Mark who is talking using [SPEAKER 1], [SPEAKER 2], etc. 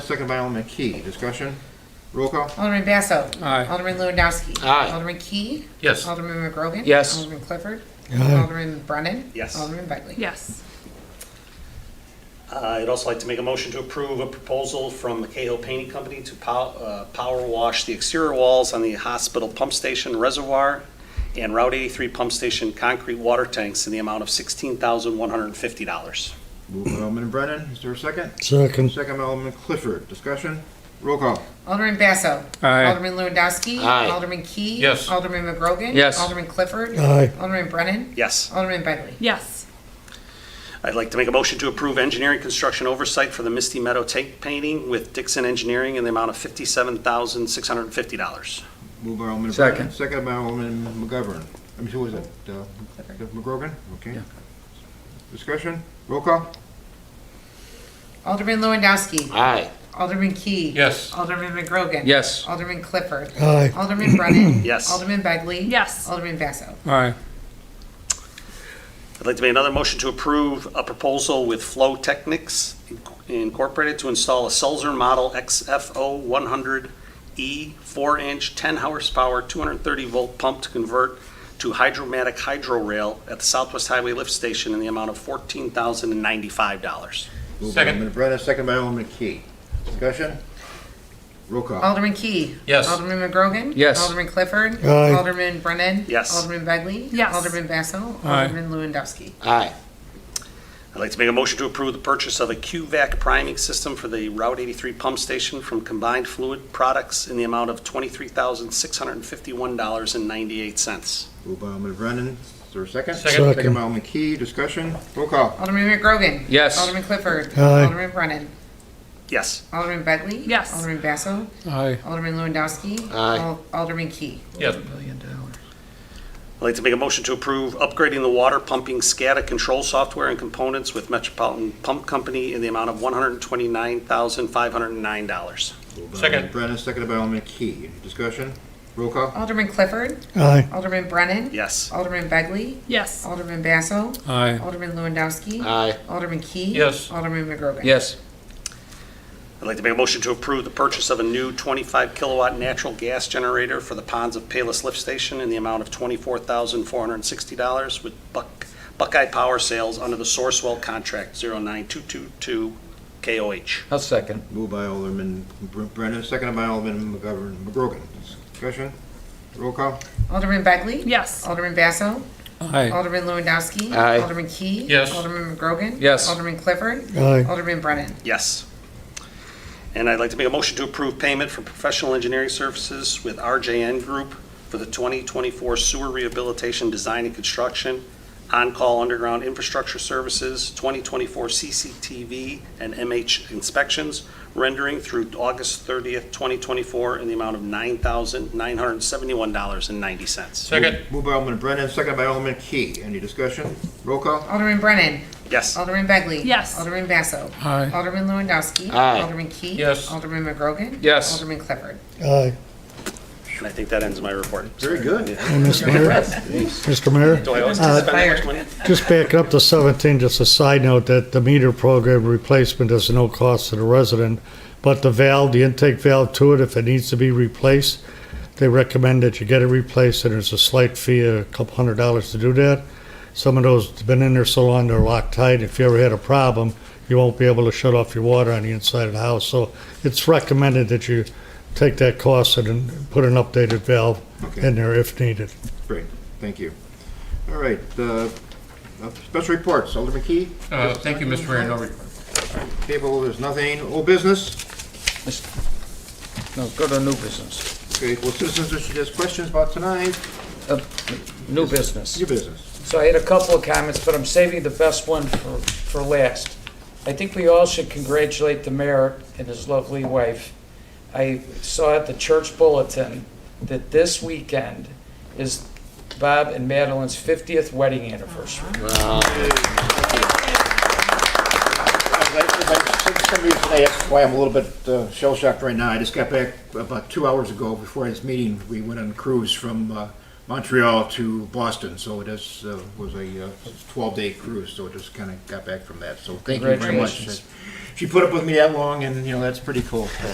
[SPEAKER 1] second by Alderman Key. Discussion? Roll call?
[SPEAKER 2] Alderman Basso.
[SPEAKER 3] Aye.
[SPEAKER 2] Alderman Lewandowski.
[SPEAKER 4] Aye.
[SPEAKER 2] Alderman Key.
[SPEAKER 4] Yes.
[SPEAKER 2] Alderman McGrogan.
[SPEAKER 4] Yes.
[SPEAKER 2] Alderman Clifford.
[SPEAKER 5] Aye.
[SPEAKER 2] Alderman Brennan.
[SPEAKER 6] Yes.
[SPEAKER 2] Alderman Begley.
[SPEAKER 7] Yes.
[SPEAKER 6] Uh, I'd also like to make a motion to approve a proposal from the Cahill Painting Company to pow- uh, power wash the exterior walls on the hospital pump station reservoir and Route 83 pump station concrete water tanks in the amount of $16,150.
[SPEAKER 1] Moved by Alderman Brennan. Is there a second?
[SPEAKER 3] Hmm.
[SPEAKER 5] Second.
[SPEAKER 1] Second by Alderman Clifford. Discussion? Roll call?
[SPEAKER 2] Alderman Basso.
[SPEAKER 3] Aye.
[SPEAKER 2] Alderman Lewandowski.
[SPEAKER 4] Aye.
[SPEAKER 2] Alderman Key.
[SPEAKER 4] Yes.
[SPEAKER 2] Alderman McGrogan.
[SPEAKER 4] Yes.
[SPEAKER 2] Alderman Clifford.
[SPEAKER 5] Aye.
[SPEAKER 2] Alderman Brennan.
[SPEAKER 6] Yes.
[SPEAKER 2] Alderman Begley.
[SPEAKER 7] Yes.
[SPEAKER 6] I'd like to make a motion to approve engineering construction oversight for the Misty Meadow tank painting with Dixon Engineering in the amount of $57,650.
[SPEAKER 1] Moved by Alderman
[SPEAKER 3] Second.
[SPEAKER 1] Brennan. Second by Alderman McGovern. I mean, who was it? Uh, McGrogan? Okay.
[SPEAKER 3] Yeah.
[SPEAKER 1] Discussion? Roll call?
[SPEAKER 2] Alderman Lewandowski.
[SPEAKER 4] Aye.
[SPEAKER 2] Alderman Key.
[SPEAKER 4] Yes.
[SPEAKER 2] Alderman McGrogan.
[SPEAKER 3] Yes.
[SPEAKER 2] Alderman Clifford.
[SPEAKER 5] Aye.
[SPEAKER 2] Alderman Brennan.
[SPEAKER 6] Yes.
[SPEAKER 2] Alderman Begley.
[SPEAKER 7] Yes.
[SPEAKER 2] Alderman Basso.
[SPEAKER 3] Aye.
[SPEAKER 6] I'd like to make another motion to approve a proposal with Flow Technics Incorporated to install a Sulzer Model XFO 100E 4-inch, 10 horsepower, 230-volt pump to convert to hydromatic hydro rail at the Southwest Highway Lift Station in the amount of $14,095.
[SPEAKER 1] Moved by Alderman Brennan. Second by Alderman Key. Discussion? Roll call?
[SPEAKER 2] Alderman Key.
[SPEAKER 4] Yes.
[SPEAKER 2] Alderman McGrogan.
[SPEAKER 3] Yes.
[SPEAKER 2] Alderman Clifford.
[SPEAKER 5] Aye.
[SPEAKER 2] Alderman Brennan.
[SPEAKER 6] Yes.
[SPEAKER 2] Alderman Begley.
[SPEAKER 7] Yes.
[SPEAKER 2] Alderman Basso.
[SPEAKER 3] Aye.
[SPEAKER 2] Alderman Lewandowski.
[SPEAKER 4] Aye.
[SPEAKER 6] I'd like to make a motion to approve the purchase of a QVAC priming system for the Route 83 pump station from Combined Fluid Products in the amount of $23,651.98.
[SPEAKER 1] Moved by Alderman Brennan. Is there a second?
[SPEAKER 5] Second.
[SPEAKER 1] Second by Alderman Key. Discussion? Roll call?
[SPEAKER 2] Alderman McGrogan.
[SPEAKER 3] Yes.
[SPEAKER 2] Alderman Clifford.
[SPEAKER 5] Aye.
[SPEAKER 2] Alderman Brennan.
[SPEAKER 6] Yes.
[SPEAKER 2] Alderman Begley.
[SPEAKER 7] Yes.
[SPEAKER 2] Alderman Basso.
[SPEAKER 3] Aye.
[SPEAKER 2] Alderman Lewandowski.
[SPEAKER 4] Aye.
[SPEAKER 2] Al- Alderman Key.
[SPEAKER 4] Yes.
[SPEAKER 6] I'd like to make a motion to approve upgrading the water pumping SCADA control software and components with Metropolitan Pump Company in the amount of $129,509.
[SPEAKER 1] Moved by
[SPEAKER 4] Second.
[SPEAKER 1] Alderman Brennan. Second by Alderman Key. Discussion? Roll call?
[SPEAKER 2] Alderman Clifford.
[SPEAKER 5] Aye.
[SPEAKER 2] Alderman Brennan.
[SPEAKER 6] Yes.
[SPEAKER 2] Alderman Begley.
[SPEAKER 7] Yes.
[SPEAKER 2] Alderman Basso.
[SPEAKER 3] Aye.
[SPEAKER 2] Alderman Lewandowski.
[SPEAKER 4] Aye.
[SPEAKER 2] Alderman Key.
[SPEAKER 4] Yes.
[SPEAKER 2] Alderman McGrogan.
[SPEAKER 3] Yes.
[SPEAKER 6] I'd like to make a motion to approve the purchase of a new 25-kilowatt natural gas generator for the ponds of Payless Lift Station in the amount of $24,460 with Buck- Buckeye Power Sales under the Sourcewell Contract 09222KOH.
[SPEAKER 3] I'll second.
[SPEAKER 1] Moved by Alderman Br- Brennan, seconded by Alderman McGovern, McGrogan. Discussion? Roll call?
[SPEAKER 2] Alderman Begley.
[SPEAKER 7] Yes.
[SPEAKER 2] Alderman Basso.
[SPEAKER 3] Aye.
[SPEAKER 2] Alderman Lewandowski.
[SPEAKER 4] Aye.
[SPEAKER 2] Alderman Key.
[SPEAKER 4] Yes.
[SPEAKER 2] Alderman McGrogan.
[SPEAKER 3] Yes.
[SPEAKER 2] Alderman Clifford.
[SPEAKER 5] Aye.
[SPEAKER 2] Alderman Brennan.
[SPEAKER 6] Yes. And I'd like to make a motion to approve payment for professional engineering services with RJN Group for the 2024 sewer rehabilitation, design and construction, on-call underground infrastructure services, 2024 CCTV and MH inspections, rendering through August 30th, 2024, in the amount of $9,971.90.
[SPEAKER 4] Second.
[SPEAKER 1] Moved by Alderman Brennan, seconded by Alderman Key. Any discussion? Roll call?
[SPEAKER 2] Alderman Brennan.
[SPEAKER 6] Yes.
[SPEAKER 2] Alderman Begley.
[SPEAKER 7] Yes.
[SPEAKER 2] Alderman Basso.
[SPEAKER 3] Aye.
[SPEAKER 2] Alderman Lewandowski.
[SPEAKER 4] Aye.
[SPEAKER 2] Alderman Key.
[SPEAKER 4] Yes.
[SPEAKER 2] Alderman McGrogan.
[SPEAKER 3] Yes.
[SPEAKER 2] Alderman Clifford.
[SPEAKER 5] Aye.
[SPEAKER 6] And I think that ends my report.
[SPEAKER 1] Very good.
[SPEAKER 5] Mr. Mayor, Mr. Mayor,
[SPEAKER 6] Do I always have to spend that much money?
[SPEAKER 5] just backing up to 17, just a side note that the meter program replacement is no cost to the resident, but the valve, the intake valve to it, if it needs to be replaced, they recommend that you get it replaced, and there's a slight fee, a couple hundred dollars to do that. Some of those have been in there so long, they're locked tight. If you ever had a problem, you won't be able to shut off your water on the inside of the house. So it's recommended that you take that cost and then put an updated valve
[SPEAKER 1] Okay,
[SPEAKER 5] in there if needed.
[SPEAKER 1] great. Thank you. All right, uh, uh, special reports. Alderman Key?
[SPEAKER 8] Uh, Thank you, Mr. Mayor, no report.
[SPEAKER 1] Table, there's nothing. Old business?
[SPEAKER 3] No, go to new business.
[SPEAKER 1] Okay, well, citizens, if there's questions about tonight,
[SPEAKER 3] New business.
[SPEAKER 1] it's your business.
[SPEAKER 3] So I had a couple of comments, but I'm saving the best one for, for last. I think we all should congratulate the mayor and his lovely wife. I saw at the church bulletin that this weekend is Bob and Madeline's 50th wedding anniversary.
[SPEAKER 1] Somebody today asked why I'm a little bit shell shocked right now. I just got back about two hours ago before this meeting. We went on a cruise from uh, Montreal to Boston, so it is, uh, was a uh, 12-day cruise, so just kind of got back from that, so thank you very much.
[SPEAKER 3] Congratulations.
[SPEAKER 1] She put up with me that long, and, you know, that's pretty cool.